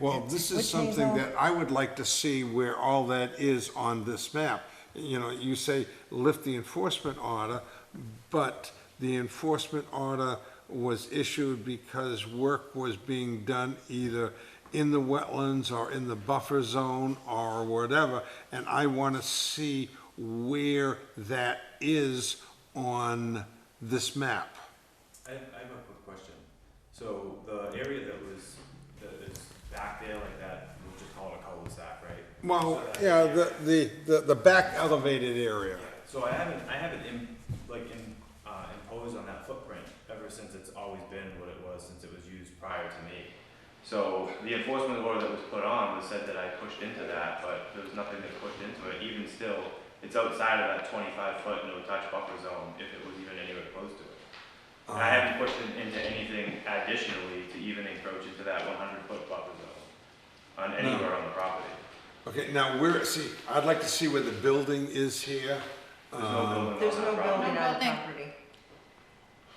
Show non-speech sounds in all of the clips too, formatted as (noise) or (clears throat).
Well, this Which is is something all- that I would like to see where all that is on this map. You know, you say lift the enforcement order, but the enforcement order was issued because work was being done either in the wetlands or in the buffer zone or whatever, and I want to see where that is on this map. I have, I have a quick question. So the area that was, that is back there like that, we'll just call it a cul-de-sac, right? Well, So that- yeah, the, the- the, the back elevated area. So I haven't, I haven't im- like im- uh, imposed on that footprint ever since it's always been what it was since it was used prior to me. So the enforcement order that was put on was said that I pushed into that, but there was nothing that pushed into it. Even still, it's outside of that twenty-five foot no touch buffer zone if it was even anywhere close to it. And I haven't pushed in- into anything additionally to even encroach into that one hundred foot buffer zone on anywhere on the property. Okay, now where, see, I'd like to see where the building is here. There's no building on that property. There's no building on the Building. property.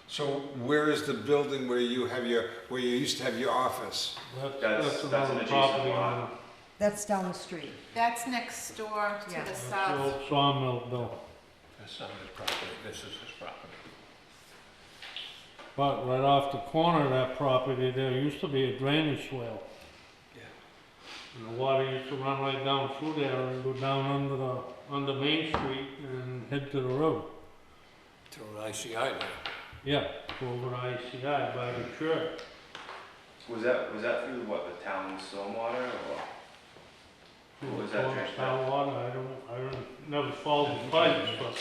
So where is the building where you have your, where you used to have your office? That's, that's an adjacent lot. That's down the street. That's next door to Yeah. the south. Sawmill bill, That's not his property, this is his property. but right off the corner of that property, there used to be a drainage swale. And the water used to run right down through there and go down under the, under Main Street and head to the road. To an ICI now. Yeah, over to ICI by the church. Was that, was that through what, the town stormwater or? What was that drainage swale? Town water, I don't, I don't, never followed the pipes, but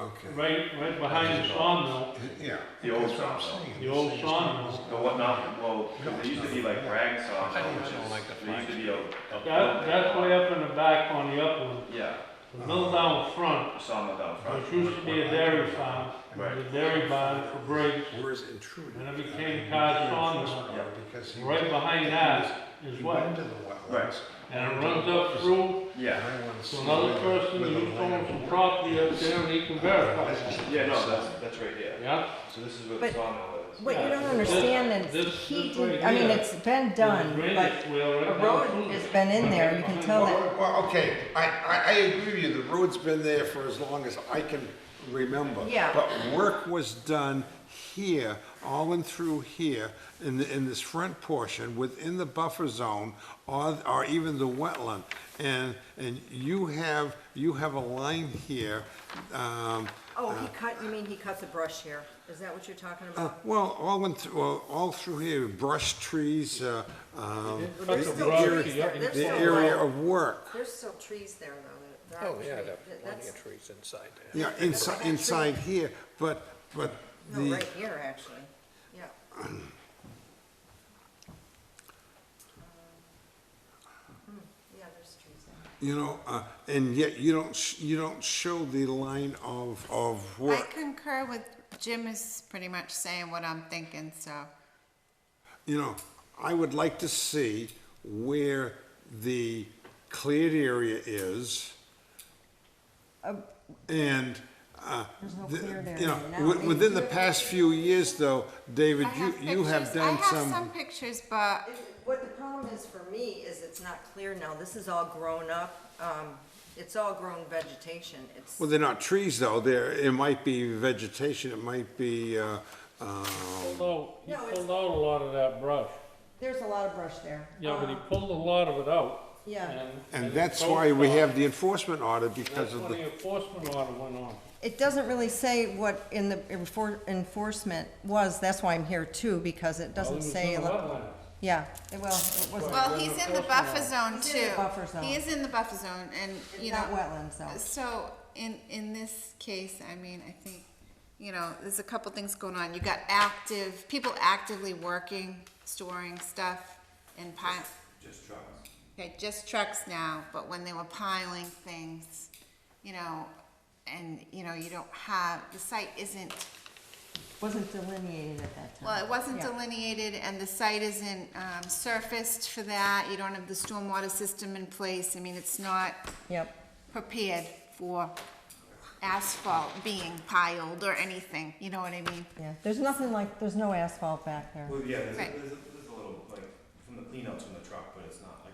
Okay. right, right behind the sawmill, Yeah. The old That's what I'm sawmill. saying. the old sawmill. The what not, well, 'cause there used to be like rag saw, I don't which know, like the is, there used to be a. a That, that's way up in the back on the upland, Yeah, the mill down front, sawmill down front. which used to be a dairy farm, Right. the dairy barn for breaks. Where is intruding? And it became Cod Sawmill. Yeah. Because he. Right behind that is He what, went to the Right. wetlands. and it runs up through Yeah, I wanna see to another where- person where the who owns land- some property up there and he can verify. that. yeah, no, that's, that's right here. Yeah, So this is where the But- sawmill is. What you don't understand This- is, this- he this did, right I mean, here it's been There's done, a but drainage swale right a down road through has there. been in there, you can tell that. Well, well, okay, I, I, I agree with you, the road's been there for as long as I can remember. Yeah. But work was done here, all and through here, in, the- in this front portion, within the buffer zone, or, or even the wetland. And, and you have, you have a line here, um, Oh, he cut, you mean he cut the brush here? Is that what you're talking uh, about? well, all in, th- well, all through here, brush trees, uh, um, Well, There's the still area- trees there, there's the still, area like- of work. there's still trees there though, that, that Oh, tree, yeah, there that- plenty that's, of trees inside there. Yeah, inside, inside here, but, but no, the, right here actually, yeah. (clears throat) Hmm, Yeah, there's trees there. you know, uh, and yet you don't, sh- you don't show the line of, of I work. concur with, Jim is pretty much saying what I'm thinking, so. You know, I would like to see where the cleared area is. And, uh, the- cleared area you know, now. wi- within the past few years though, David, I you, you have pictures- done I have some pictures, but It- What the problem is for me is it's not clear now, this is all grown up, um, it's all grown vegetation, it's. Well, they're not trees though, they're, it might be vegetation, it might be, uh, uh, Although, he No, it's- pulled out a lot of that brush. There's a lot of brush there. Yeah, but he pulled a lot of it out. Uh-huh. Yeah. And he that's why we focused on- have the enforcement order because That's of when the, the enforcement order went on. It doesn't really say what in the enfor- enforcement was, that's why I'm here too, because it Well, it doesn't was say, in the look- wetlands. yeah, it- well, it was. Well, he's in the buffer zone He's too. in the buffer zone. He is in the buffer zone and, you know. Not wetlands though. So, in, in this case, I mean, I think, you know, there's a couple things going on. You got active, people actively working, storing stuff and piling. Just trucks. Okay, just trucks now, but when they were piling things, you know, and, you know, you don't have, the site isn't, Wasn't delineated at that time. well, it wasn't Yeah. delineated and the site isn't, um, surfaced for that. You don't have the stormwater system in place. I mean, it's not Yep, prepared for asphalt being piled or anything, you know what I mean? yeah, there's nothing like, there's no asphalt back there. Well, yeah, there's, a- Right. there's, a- there's a little, like, from the cleanouts from the truck,